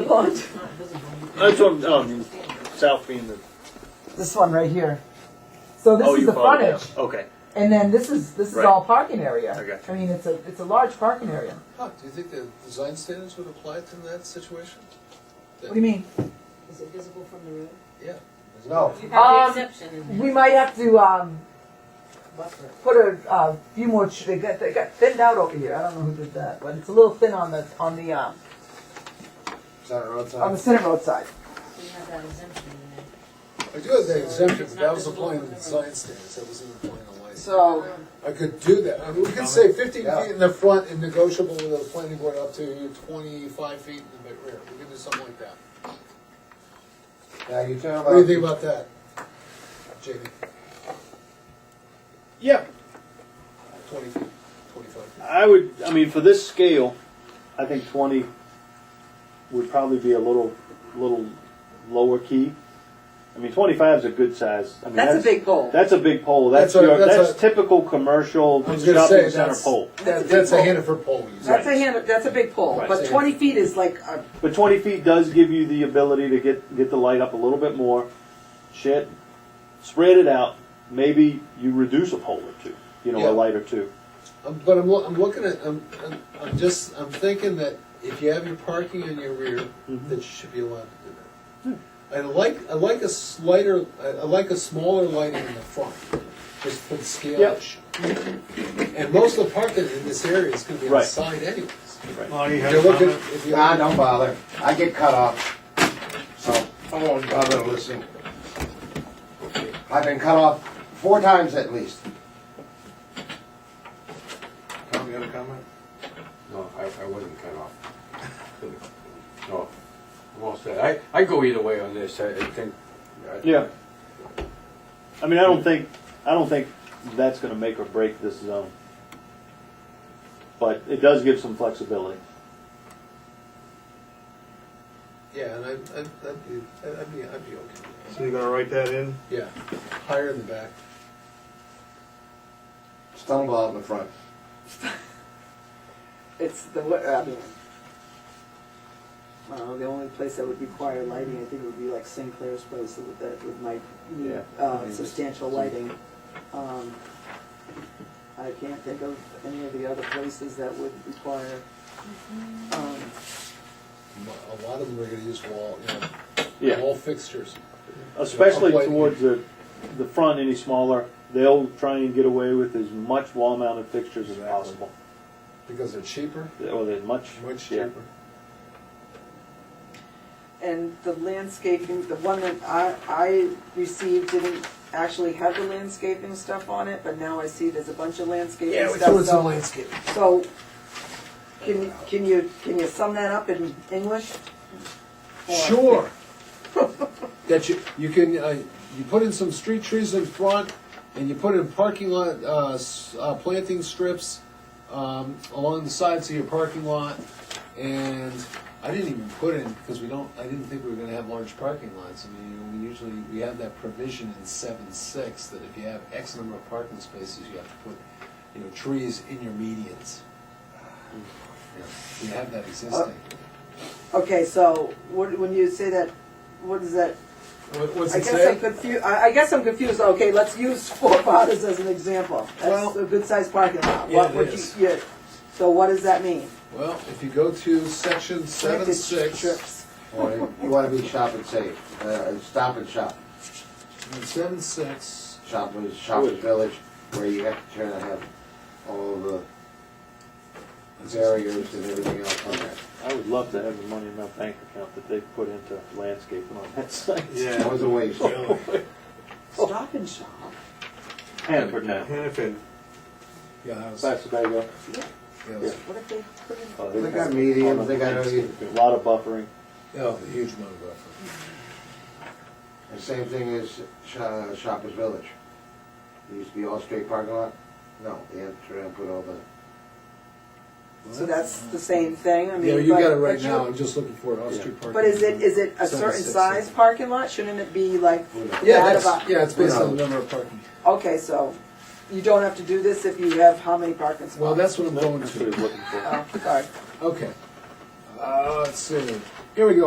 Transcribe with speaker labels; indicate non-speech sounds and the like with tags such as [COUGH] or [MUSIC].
Speaker 1: The pond.
Speaker 2: That's what, oh, you- south being the.
Speaker 3: This one right here. So this
Speaker 2: oh,
Speaker 3: is
Speaker 2: you
Speaker 3: the
Speaker 2: follow down.
Speaker 3: frontage,
Speaker 2: Okay.
Speaker 3: and then this is this is
Speaker 2: Right.
Speaker 3: all parking area.
Speaker 2: I got you.
Speaker 3: I mean, it's a it's a large parking area.
Speaker 4: Huh, do you think the design standards would apply to that situation?
Speaker 3: What do you mean?
Speaker 5: Is it visible from the road?
Speaker 4: Yeah.
Speaker 6: No.
Speaker 3: Um,
Speaker 5: You have the exception in
Speaker 3: We might have to um,
Speaker 5: buffer.
Speaker 3: put a uh, few more. Ch- they got they got thinned out over here. I don't know who did that, but it's a little thin on the on the uh,
Speaker 6: It's on the roadside.
Speaker 3: on the center road side.
Speaker 5: So you have that exemption in there.
Speaker 4: I do have that exemption, but that was applying to the design standards, that wasn't applying to lighting.
Speaker 3: So
Speaker 4: I could do that, I mean, we could say fifteen
Speaker 6: Yeah.
Speaker 4: feet in the front and negotiable with the planning board up to twenty-five feet in the rear, we could do something like that.
Speaker 6: Now, you're talking about.
Speaker 4: What do you think about that, Jamie?
Speaker 2: Yeah,
Speaker 4: Twenty feet, twenty-five feet?
Speaker 2: I would. I mean, for this scale, I think twenty would probably be a little, little lower key. I mean, twenty-five is a good size. I mean,
Speaker 1: That's a big pole.
Speaker 2: That's a big pole. That's
Speaker 4: That's a-
Speaker 2: your, that's,
Speaker 4: that's a-
Speaker 2: typical commercial
Speaker 4: I was
Speaker 2: shopping
Speaker 4: gonna say,
Speaker 2: center
Speaker 4: that's-
Speaker 2: pole.
Speaker 1: That's a
Speaker 4: That- That's a
Speaker 1: big
Speaker 4: Hannaford pole, you said.
Speaker 1: That's a hand, that's a big pole,
Speaker 2: Right.
Speaker 1: but twenty feet is like a,
Speaker 2: But twenty feet does give you the ability to get get the light up a little bit more. Shit, spread it out. Maybe you reduce a pole or two. You know,
Speaker 4: Yeah.
Speaker 2: a light or two.
Speaker 4: Um, But I'm, loo- I'm looking at, I'm, I'm- I'm just, I'm thinking that if you have your parking in your rear,
Speaker 2: Mhm.
Speaker 4: that you should be allowed to do
Speaker 2: Hmm.
Speaker 4: that. I like, I like a slighter, I I like a smaller lighting in the front, just for the scale
Speaker 2: Yep.
Speaker 4: issue. And most of the parking in this area is gonna be on the
Speaker 2: Right.
Speaker 4: side anyways.
Speaker 7: Marty, you
Speaker 4: If
Speaker 7: have
Speaker 4: you're
Speaker 7: a
Speaker 4: looking,
Speaker 7: comment?
Speaker 4: if
Speaker 6: Nah,
Speaker 4: you're,
Speaker 6: don't bother. I get cut off. So I won't bother to listen. I've been cut off four times at least.
Speaker 7: Tom, you have a comment?
Speaker 8: No, I, I wasn't cut off. [LAUGHS] No, I'm all set. I, I go either way on this, I I think. I-
Speaker 2: Yeah. I mean, I don't think I don't think that's going to make or break this zone, but it does give some flexibility.
Speaker 4: yeah, and I, I- I'd be, I'd be, I'd be okay with
Speaker 7: So you're gonna write that in?
Speaker 4: that. Yeah, higher in the back.
Speaker 6: Stumble out in the front.
Speaker 1: it's the, what, I mean. I don't know, the only place that would require lighting, I think, would be like Sinclair's place with that, with my,
Speaker 6: Yeah.
Speaker 1: uh, substantial lighting. Um, I can't think of any of the other places that would require, um,
Speaker 4: A lot of them are gonna use wall, you know,
Speaker 2: Yeah,
Speaker 4: wall fixtures.
Speaker 2: especially
Speaker 4: Uplight.
Speaker 2: towards the the front. Any smaller, they'll try and get away with as much wall-mounted fixtures as
Speaker 4: Exactly.
Speaker 2: possible.
Speaker 4: Because they're cheaper,
Speaker 2: Well, they're much,
Speaker 4: much
Speaker 2: yeah.
Speaker 4: cheaper.
Speaker 1: and the landscaping, the one that I, I received didn't actually have the landscaping stuff on it, but now I see there's a bunch of landscaping stuff. so-
Speaker 4: landscape.
Speaker 1: So, can, can you, can you sum that up in English? Or-
Speaker 4: Sure. [LAUGHS] That you, you can, uh, you put in some street trees in front, and you put in parking lot, uh, s- uh, planting strips, um, along the sides of your parking lot, and I didn't even put in, because we don't, I didn't think we were gonna have large parking lots, I mean, we usually, we have that provision in seven six, that if you have X number of parking spaces, you have to put, you know, trees in your
Speaker 1: [SIGHS]
Speaker 4: medians. Yeah, We have that existing.
Speaker 1: Okay, so, what, when you say that, what is that?
Speaker 4: What- What's
Speaker 1: I
Speaker 4: it
Speaker 1: guess
Speaker 4: say?
Speaker 1: I'm confused, I, I guess I'm confused, okay, let's use [LAUGHS] Four Fathers as an example. That's
Speaker 4: Well-
Speaker 1: a good sized parking lot.
Speaker 4: Yeah,
Speaker 1: What
Speaker 4: it
Speaker 1: would you-
Speaker 4: is.
Speaker 1: yeah. So what does that mean?
Speaker 4: Well, if you go to section seven
Speaker 1: Connected
Speaker 4: six,
Speaker 1: strips.
Speaker 6: Or you want to be shop and save. Uh, stop and shop.
Speaker 4: seven six,
Speaker 6: Shoppers, Shoppers Village, where you have to try to have all the barriers and everything else on there.
Speaker 2: I would love to have the money in my bank account that they put into landscaping on that [LAUGHS] site.
Speaker 6: That
Speaker 7: Yeah.
Speaker 6: was a waste.
Speaker 7: Really?
Speaker 1: Stop and shop.
Speaker 2: Hanford now.
Speaker 7: Hannafin.
Speaker 4: yeah, that was,
Speaker 2: That's what they go.
Speaker 4: yeah, it was-
Speaker 1: What if they put in?
Speaker 2: Oh,
Speaker 6: They got mediums, they got everything.
Speaker 2: a lot of buffering.
Speaker 4: yeah, it was a huge amount of buffer.
Speaker 6: The same thing as Sh- uh, Shoppers Village. It used to be all straight parking lot. No, they had to try and put all the,
Speaker 1: So that's the same thing, I mean.
Speaker 4: Yeah, you
Speaker 1: but-
Speaker 4: got it right
Speaker 1: but you-
Speaker 4: now, I'm just looking for an off-street parking.
Speaker 1: But is it, is it a
Speaker 4: Seven,
Speaker 1: certain
Speaker 4: six,
Speaker 1: size
Speaker 4: yeah.
Speaker 1: parking lot? Shouldn't it be like
Speaker 4: Yeah,
Speaker 1: that
Speaker 4: that's,
Speaker 1: about?
Speaker 4: yeah, it's based
Speaker 6: Yeah.
Speaker 4: on the number of parking.
Speaker 1: Okay, so you don't have to do this if you have how many parking spots?
Speaker 4: Well, that's what I'm going
Speaker 2: That's what
Speaker 4: to,
Speaker 2: he's looking for.
Speaker 1: Oh, sorry.
Speaker 4: okay. Uh, let's see, here we go,